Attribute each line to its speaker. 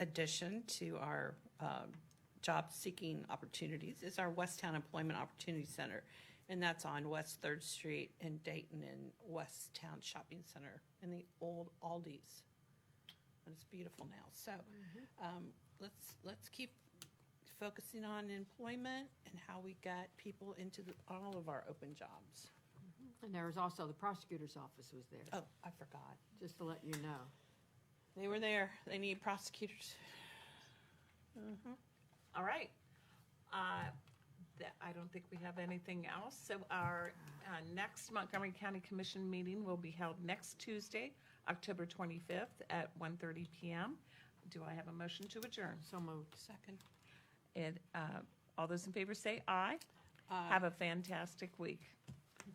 Speaker 1: addition to our um, job-seeking opportunities is our Westtown Employment Opportunity Center, and that's on West Third Street in Dayton and Westtown Shopping Center in the old Aldi's. And it's beautiful now. So um, let's, let's keep focusing on employment and how we get people into the- all of our open jobs.
Speaker 2: And there was also, the prosecutor's office was there,
Speaker 1: Oh, I forgot.
Speaker 2: just to let you know.
Speaker 1: They were there. They need prosecutors.
Speaker 3: All right. Uh, th- I don't think we have anything else. So our uh, next Montgomery County Commission meeting will be held next Tuesday, October 25th at 1:30 PM. Do I have a motion to adjourn?
Speaker 2: So moved.
Speaker 1: Second.
Speaker 3: And uh, all those in favor say aye. Have a fantastic week.